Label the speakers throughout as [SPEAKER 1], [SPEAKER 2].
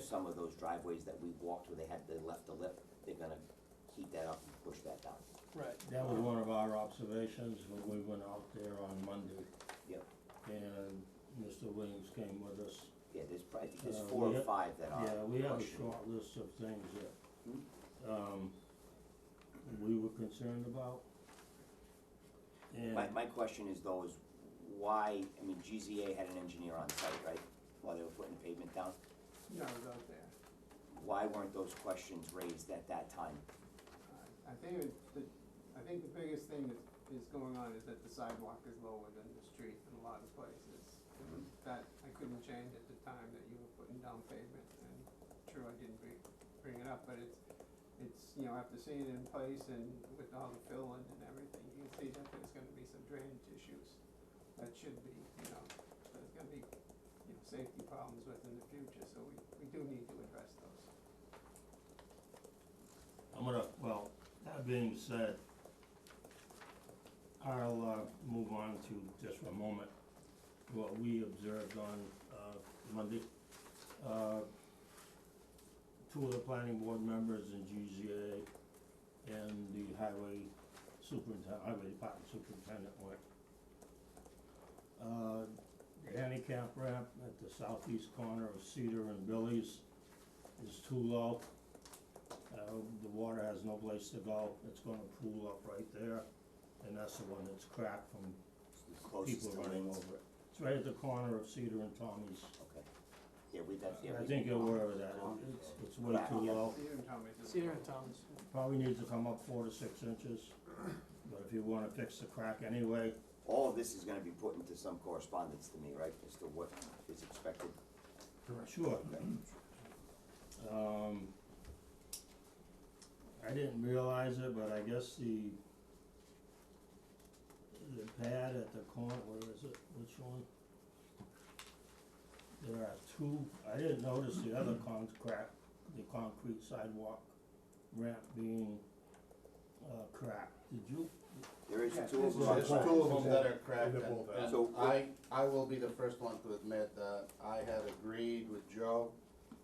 [SPEAKER 1] some of those driveways that we walked where they had, they left the lip, they're gonna heat that up and push that down.
[SPEAKER 2] Right.
[SPEAKER 3] That was one of our observations when we went out there on Monday,
[SPEAKER 1] Yep,
[SPEAKER 3] and Mr. Williams came with us.
[SPEAKER 1] yeah, there's probably, there's
[SPEAKER 3] Uh,
[SPEAKER 1] four
[SPEAKER 3] we
[SPEAKER 1] or
[SPEAKER 3] have-
[SPEAKER 1] five that are.
[SPEAKER 3] Yeah, we have a
[SPEAKER 1] pushing.
[SPEAKER 3] short list of things that, um, we were concerned about. And,
[SPEAKER 1] My, my question is though, is why, I mean, GZA had an engineer on site, right, while they were putting the pavement down?
[SPEAKER 2] No, it was out there.
[SPEAKER 1] Why weren't those questions raised at that time?
[SPEAKER 2] Uh, I think it, the, I think the biggest thing that is going on is that the sidewalk is lower than the street in a lot of places. That I couldn't change at the time that you were putting down pavement, and true, I didn't bring, bring it up, but it's, it's, you know, after seeing it in place and with all the filling and everything, you can see that there's gonna be some drainage issues that should be, you know, there's gonna be, you know, safety problems with in the future, so we, we do need to address those.
[SPEAKER 3] I'm gonna, well, that being said, I'll, uh, move on to just for a moment, what we observed on, uh, Monday. Uh, two of the planning board members and GZA and the highway superintendent, highway department superintendent went. Uh, the handicap ramp at the southeast corner of Cedar and Billy's is too low. Uh, the water has no place to go, it's gonna pool up right there, and that's the one that's cracked from
[SPEAKER 1] It's the closest
[SPEAKER 3] people
[SPEAKER 1] to
[SPEAKER 3] running
[SPEAKER 1] Lynn's.
[SPEAKER 3] over it. It's right at the corner of Cedar and Tommy's,
[SPEAKER 1] Okay, yeah, we, that's, yeah,
[SPEAKER 3] I
[SPEAKER 1] we-
[SPEAKER 3] think you're aware of that, It- it's, it's way
[SPEAKER 1] Crack,
[SPEAKER 3] too
[SPEAKER 1] yeah.
[SPEAKER 3] low,
[SPEAKER 2] You didn't tell me to-
[SPEAKER 4] Cedar and Thomas.
[SPEAKER 3] probably needs to come up four to six inches. But if you wanna fix the crack anyway,
[SPEAKER 1] all of this is gonna be put into some correspondence to me, right, as to what is expected?
[SPEAKER 3] Sure.
[SPEAKER 5] Mm-hmm.
[SPEAKER 3] Um, I didn't realize it, but I guess the, the pad at the corner, where is it, which one? There are two, I didn't notice the other concrete, the concrete sidewalk ramp being, uh, cracked, did you?
[SPEAKER 1] There is
[SPEAKER 2] Yeah,
[SPEAKER 1] two of
[SPEAKER 2] this
[SPEAKER 1] them.
[SPEAKER 2] is
[SPEAKER 1] on
[SPEAKER 5] There's
[SPEAKER 2] just
[SPEAKER 1] the-
[SPEAKER 5] two of them that are cracked,
[SPEAKER 6] And they're both
[SPEAKER 5] and-
[SPEAKER 1] out.
[SPEAKER 5] and I, I will be the first one to admit that I had agreed with Joe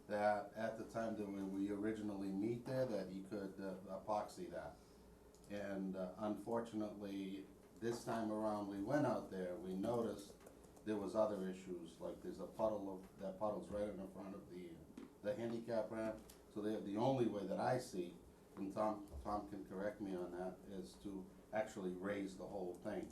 [SPEAKER 5] that at the time that we, we originally meet there, that he could uh, epoxy that. And uh, unfortunately, this time around, we went out there, we noticed there was other issues, like there's a puddle of, that puddle's right in front of the, the handicap ramp. So the, the only way that I see, and Tom, Tom can correct me on that, is to actually raise the whole thing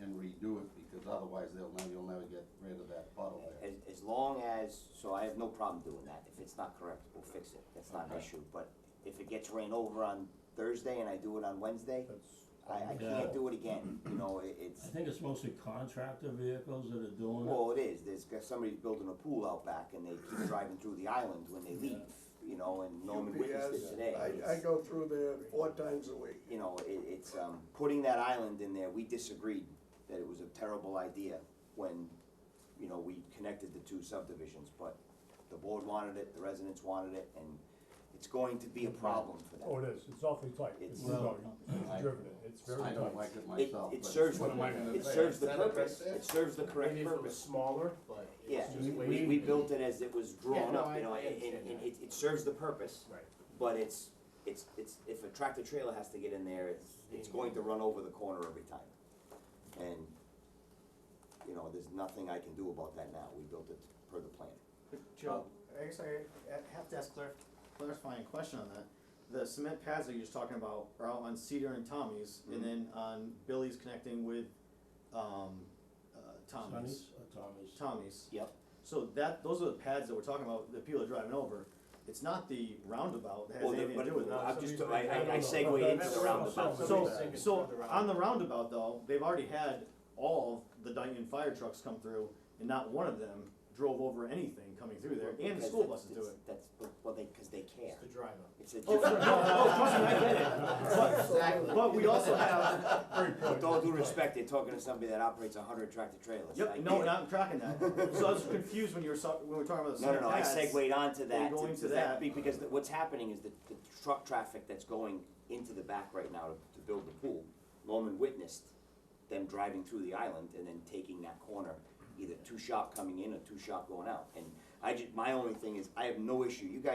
[SPEAKER 5] and redo it, because otherwise they'll, never- you'll never get rid of that puddle there.
[SPEAKER 1] As, as long as, so I have no problem doing that, if it's not correct, we'll fix it, that's not an
[SPEAKER 5] Okay.
[SPEAKER 1] issue, but if it gets rained over on Thursday and I do it on Wednesday,
[SPEAKER 3] That's-
[SPEAKER 1] I, I
[SPEAKER 3] Yeah.
[SPEAKER 1] can't do it again, you know, it,
[SPEAKER 3] I
[SPEAKER 1] it's,
[SPEAKER 3] think it's mostly contractor vehicles that are doing it.
[SPEAKER 1] well, it is, there's, 'cause somebody's building a pool out back and they keep driving through the island when they leave, you know, and Norman witnessed it
[SPEAKER 6] UPS,
[SPEAKER 1] today.
[SPEAKER 6] I, I go through there four times a week.
[SPEAKER 1] you know, it, it's, um, putting that island in there, we disagreed that it was a terrible idea when, you know, we connected the two subdivisions, but the board wanted it, the residents wanted it, and it's going to be a problem for
[SPEAKER 6] Oh,
[SPEAKER 1] them.
[SPEAKER 6] it is, it's awfully tight, it's,
[SPEAKER 1] It's-
[SPEAKER 6] no,
[SPEAKER 5] I-
[SPEAKER 6] it's driven it, it's very tight.
[SPEAKER 5] I don't like it
[SPEAKER 1] It,
[SPEAKER 5] myself, but.
[SPEAKER 1] it serves, the-
[SPEAKER 5] what am I gonna
[SPEAKER 1] it
[SPEAKER 5] say?
[SPEAKER 1] serves the
[SPEAKER 5] Is that it right
[SPEAKER 1] purpose,
[SPEAKER 5] there?
[SPEAKER 1] it serves the correct
[SPEAKER 4] Maybe if it was
[SPEAKER 1] purpose.
[SPEAKER 4] smaller, but
[SPEAKER 1] Yeah,
[SPEAKER 4] it's
[SPEAKER 1] we,
[SPEAKER 4] just way.
[SPEAKER 1] we, we built it as it was
[SPEAKER 4] Yeah,
[SPEAKER 1] drawn
[SPEAKER 4] no,
[SPEAKER 1] up,
[SPEAKER 4] I-
[SPEAKER 1] you know,
[SPEAKER 4] I
[SPEAKER 1] and, and,
[SPEAKER 4] understand
[SPEAKER 1] and
[SPEAKER 4] that.
[SPEAKER 1] it, it serves the purpose,
[SPEAKER 4] Right.
[SPEAKER 1] but it's, it's, it's, if a tractor trailer has to get in there, it's, it's going to run over the corner every time. And, you know, there's nothing I can do about that now, we built it per the plan.
[SPEAKER 7] But Joe, I guess I I have to ask clar- clarifying question on that. The cement pads that you're just talking about are out on Cedar and Tommy's,
[SPEAKER 1] Mhm.
[SPEAKER 7] and then on Billy's connecting with, um, uh, Tommy's.
[SPEAKER 3] Sonny's or Tommy's?
[SPEAKER 7] Tommy's.
[SPEAKER 1] Yep.
[SPEAKER 7] So that, those are the pads that we're talking about, that people are driving over. It's not the roundabout that
[SPEAKER 1] Well,
[SPEAKER 7] has
[SPEAKER 1] the-
[SPEAKER 7] anything to do with
[SPEAKER 1] but
[SPEAKER 7] that.
[SPEAKER 1] I'm just, I,
[SPEAKER 6] Somebody's like,
[SPEAKER 1] I, I
[SPEAKER 6] I don't know.
[SPEAKER 1] segue into the
[SPEAKER 6] That's-
[SPEAKER 1] roundabout.
[SPEAKER 6] that's-
[SPEAKER 7] So,
[SPEAKER 6] somebody's
[SPEAKER 4] thinking
[SPEAKER 7] so,
[SPEAKER 4] further
[SPEAKER 7] on the roundabout though, they've already had all of the Dyton fire trucks come through, and not one of them drove over anything coming through there, and the
[SPEAKER 1] Because
[SPEAKER 7] school
[SPEAKER 1] that's-
[SPEAKER 7] buses do it.
[SPEAKER 1] That's, but- well, they, cause they care,
[SPEAKER 4] the drive up.
[SPEAKER 1] it's a
[SPEAKER 7] Oh, no, no,
[SPEAKER 1] different,
[SPEAKER 7] no, trust me, I get it. But,
[SPEAKER 5] Exactly.
[SPEAKER 7] but we also have,
[SPEAKER 1] with all due respect, they're talking to somebody that operates a hundred tractor trailers. I
[SPEAKER 7] yep,
[SPEAKER 1] get
[SPEAKER 7] no,
[SPEAKER 1] it.
[SPEAKER 7] not tracking that. So I was confused when you were, so- when we were talking about the
[SPEAKER 1] No, no, no, I
[SPEAKER 7] pads.
[SPEAKER 1] segued onto that,
[SPEAKER 7] We're going
[SPEAKER 1] to-
[SPEAKER 7] to
[SPEAKER 1] to that,
[SPEAKER 7] that.
[SPEAKER 1] be- because the- what's happening is that the truck traffic that's going into the back right now to, to build the pool, Norman witnessed them driving through the island and then taking that corner, either two shop coming in or two shop going out, and I just, my only thing is, I have no issue, you guys